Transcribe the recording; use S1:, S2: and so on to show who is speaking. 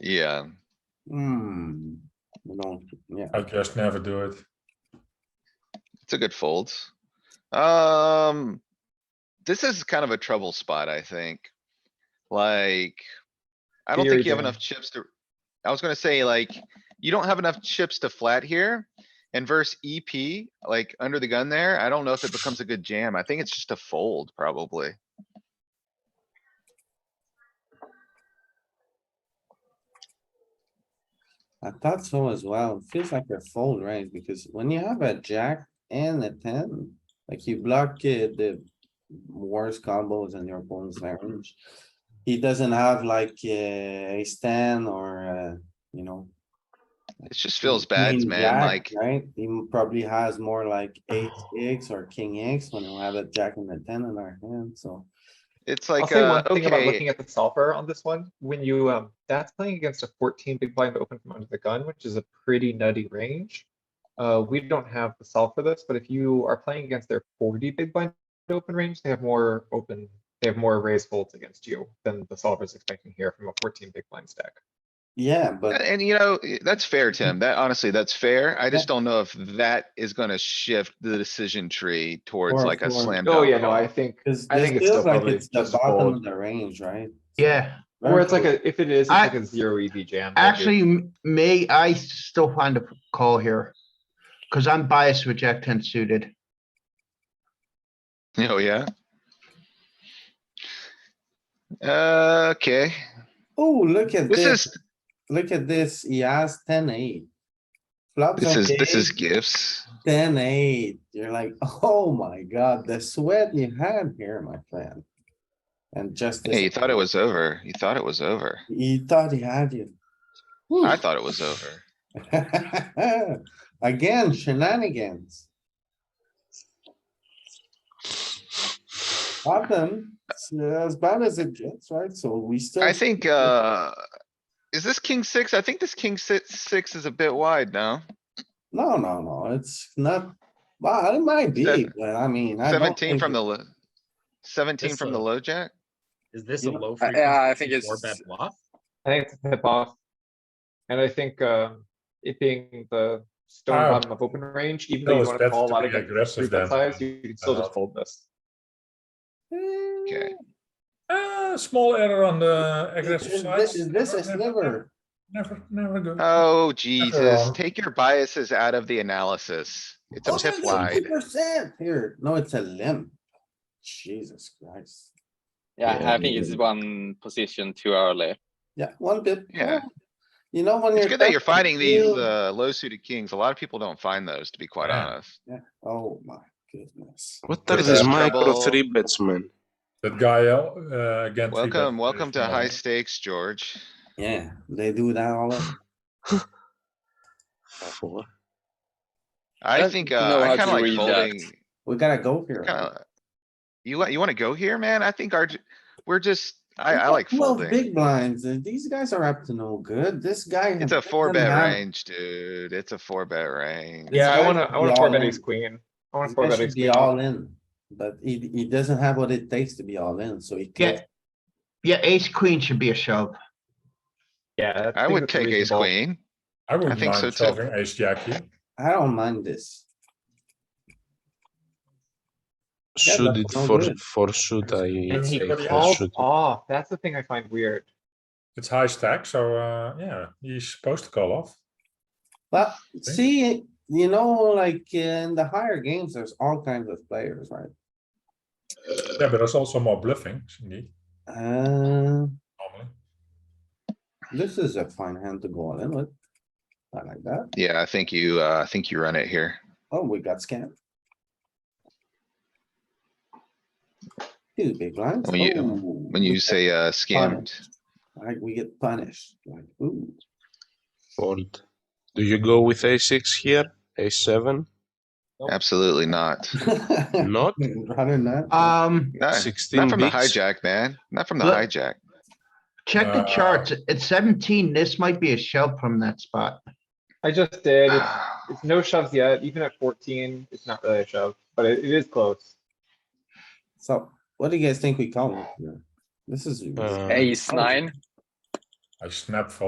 S1: Yeah,
S2: Hmm, you know, yeah,
S3: I just never do it.
S1: it's a good fold. Um, this is kind of a trouble spot, I think. Like, I don't think you have
S3: Theory
S1: enough chips to, I was gonna say, like, you don't have enough chips to flat here. And verse EP, like, under the gun there, I don't know if it becomes a good jam. I think it's just a fold, probably.
S2: I thought so as well. Feels like a fold, right? Because when you have a jack and a ten, like you block uh, the worst combos in your opponent's range. He doesn't have like a ten or, uh, you know.
S1: It just feels bad,
S2: queen
S1: man,
S2: jack,
S1: like,
S2: Right? He probably has more like eight X or king X when we have a jack and a ten in our hand, so.
S1: it's
S4: I'll
S1: like,
S4: say
S1: uh,
S4: one thing about looking
S1: okay,
S4: at the solver on this one, when you, um, that's playing against a fourteen big blind open from under the gun, which is a pretty nutty range. Uh, we don't have the solve for this, but if you are playing against their forty big blind open range, they have more open, they have more raised folds against you than the solver is expecting here from a fourteen big blind stack.
S2: Yeah, but
S1: and you know, i- that's fair, Tim. That honestly, that's fair. I just don't know if that is gonna shift the decision tree towards
S2: Or
S1: like a
S2: for-
S1: slam dunk.
S4: Oh, yeah, no,
S1: call.
S4: I think,
S2: Cause
S4: I
S2: this
S4: think it's still
S2: feels like
S4: probably
S2: it's the
S4: just
S2: bottom of
S4: fold.
S2: the range, right?
S5: Yeah,
S4: Or it's like
S2: Very
S4: a, if it is, it's
S5: I-
S4: like a zero EV jam. maybe.
S5: actually, m- may I still find a call here? Cause I'm biased with Jack ten suited.
S1: Oh, yeah? Uh, okay,
S2: Oh, look at
S1: this
S2: this,
S1: is,
S2: look at this, he has ten eight. Flops
S1: this is, this is
S2: okay,
S1: gifts.
S2: ten eight, you're like, oh my god, the sweat you had here, my friend. And just.
S1: Hey, you thought it was over. You thought it was over.
S2: He thought he had you. Hmm.
S1: I thought it was over.
S2: Again, shenanigans. Bottom, it's as bad as it gets, right? So we still.
S1: I think, uh, is this king six? I think this king six, six is a bit wide now.
S2: No, no, no, it's not, well, it might be,
S1: Seven-
S2: but I mean. I don't
S1: Seventeen
S2: think
S1: from
S2: it-
S1: the, lo- seventeen
S6: This,
S1: from the
S6: uh,
S1: low jack?
S6: Is this
S2: You
S6: a
S2: know,
S6: low
S2: I-
S6: frequency?
S7: I think
S6: Four
S7: it's-
S6: bet bluff?
S4: I think it's a tip off. And I think, um, it being the
S3: Ah.
S4: stone bottom of open range, even
S3: No,
S4: though you
S3: it's
S4: wanna
S3: better
S4: call a
S3: to
S4: lot
S3: be
S4: of good
S3: aggressive
S4: three
S3: than-
S4: bet size, you can still just
S3: Uh,
S4: fold this.
S1: Okay.
S3: Uh, small error on the aggressive
S2: Is
S3: side.
S2: thi- is This is never,
S3: Never, never good.
S1: Oh, Jesus,
S3: wrong.
S1: take your biases out of the analysis. It's a pip wide.
S2: Oh, percent here. No, it's a limb. Jesus Christ.
S7: Yeah, I think it's one position too early.
S2: Yeah, one bit.
S1: Yeah.
S2: Oh, You know, when you're.
S1: It's good that you're
S2: talking
S1: finding these,
S2: to-
S1: uh, low suited kings. A lot of people don't find those, to be quite
S3: Yeah.
S1: honest.
S2: Oh, my goodness.
S8: What
S1: What
S8: are
S1: is
S8: these
S1: that,
S8: micro
S1: trouble?
S8: three bets, man?
S3: That guy, uh, again. three bet
S1: Welcome,
S3: is
S1: welcome to
S3: small.
S1: high stakes, George.
S2: Yeah, they do that all. the-
S8: Four.
S1: I
S7: Don't
S1: think,
S7: know
S1: uh, I
S7: how
S1: kinda
S7: to
S1: like
S7: read
S1: folding,
S7: that.
S2: We gotta go here.
S1: kinda. You, wa- you wanna go here, man? I think our, j- we're just, I, I like
S2: Well,
S1: folding.
S2: big blinds, uh, these guys are up to no good. This guy.
S1: It's a
S2: doesn't
S1: four bet
S2: have-
S1: range, dude. It's a four bet range.
S4: Yeah, I
S2: guy
S4: wanna,
S2: should
S4: I
S2: be
S4: wanna four
S2: all
S4: bet
S2: in.
S4: ace queen. I wanna
S2: This
S4: four
S2: guy
S4: bet
S2: should
S4: ace
S2: Be
S4: queen.
S2: all in, but he, he doesn't have what it takes to be all in, so he can't.
S5: Yeah. Yeah, ace queen should be a shove.
S4: Yeah.
S1: I
S4: think
S1: would
S4: that's a
S1: take ace
S4: reasonable-
S1: queen.
S3: I wouldn't
S1: think so
S3: mind
S1: too.
S3: solving ace jack here.
S2: I don't mind this. Yeah,
S8: Should
S2: that's
S8: it
S2: not
S8: for,
S2: good.
S8: for should I
S4: And he
S8: say for
S4: calls
S8: should?
S4: off, that's the thing I find weird.
S3: It's high stack, so, uh, yeah, he's supposed to call off.
S2: But see, you know, like in the higher games, there's all kinds of players, right?
S3: Yeah, but there's also more bluffing, indeed,
S2: Uh,
S3: normally.
S2: this is a fine hand to go all in with. I like that.
S1: Yeah, I think you, uh, I think you run it here.
S2: Oh, we got scammed. Two big blinds.
S1: When you-
S2: Ooh,
S1: When you
S2: we get-
S1: say, uh, scammed,
S2: Like, we get punished, like, ooh.
S8: Fold. Do you go with a six here? A seven?
S1: absolutely not.
S8: Not?
S2: Rather not.
S5: Um,
S1: No,
S8: Sixteen
S1: Not from the
S8: bigs?
S1: hijack, man. Not from the
S5: Look.
S1: hijack.
S5: check the
S3: Uh,
S5: charts. At seventeen, this might be a shove from that spot.
S4: I just did, it's,
S1: Ah.
S4: it's no shoves yet, even at fourteen, it's not really a shove, but it, it is close.
S2: So what do you guys think we call it? here? This is.
S8: Uh,
S7: Ace nine.
S3: I snap fold.